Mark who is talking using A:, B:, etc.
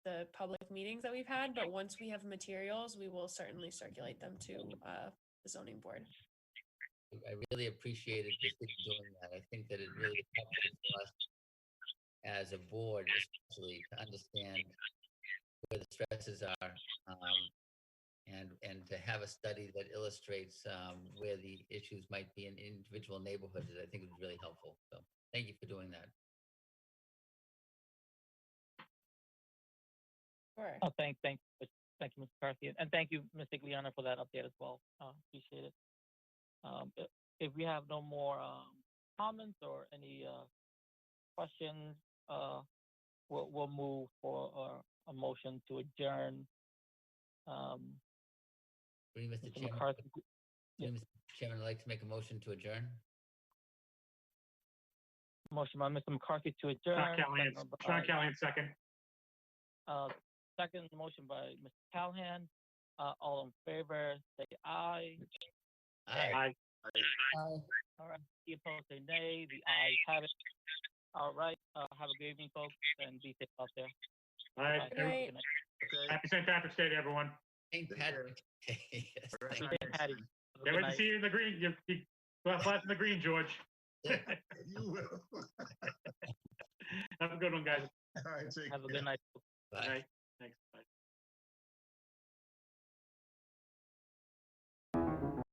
A: public meetings that we've had, but once we have materials, we will certainly circulate them to uh, the zoning board.
B: I really appreciated the city doing that. I think that it really helped us as a board especially to understand where the stresses are um, and, and to have a study that illustrates um, where the issues might be in individual neighborhoods, I think was really helpful. So thank you for doing that.
A: Sure.
C: Oh, thank, thank, but thank you, Mr. Carthy, and- and thank you, Ms. Igliana, for that update as well. Uh, appreciate it. Um, i- if we have no more, um, comments or any, uh, questions, uh, we'll, we'll move for, uh, a motion to adjourn. Um,
B: Would you, Mr.
C: Mr.
B: Chairman,
C: McCarthy,
B: would you, Mr. Chairman, I'd like to make a motion to adjourn.
C: motion by Mr. McCarthy to
D: Sean
C: adjourn.
D: Callahan,
C: second by-
D: Sean Callahan, second.
C: Uh, second motion by Mr. Callahan. Uh, all in favor, say aye.
B: Aye.
D: Aye.
C: All right, the opposed say nay, the ayes have it. All right, uh, have a good evening, folks, and be safe out there.
D: All right.
C: Bye.
A: Good night.
D: every- Happy St. Patrick's Day to everyone.
B: St. Patrick's Day. Yes, thank
C: Be safe, Patty. Have a
D: Can't
C: good
D: wait to
C: night.
D: see you in the green. You, you, glass in the green, George.
B: you.
E: You will. All
D: Have a good one, guys.
E: right, take
C: Have a
E: care.
C: good night.
B: Bye.
D: Bye.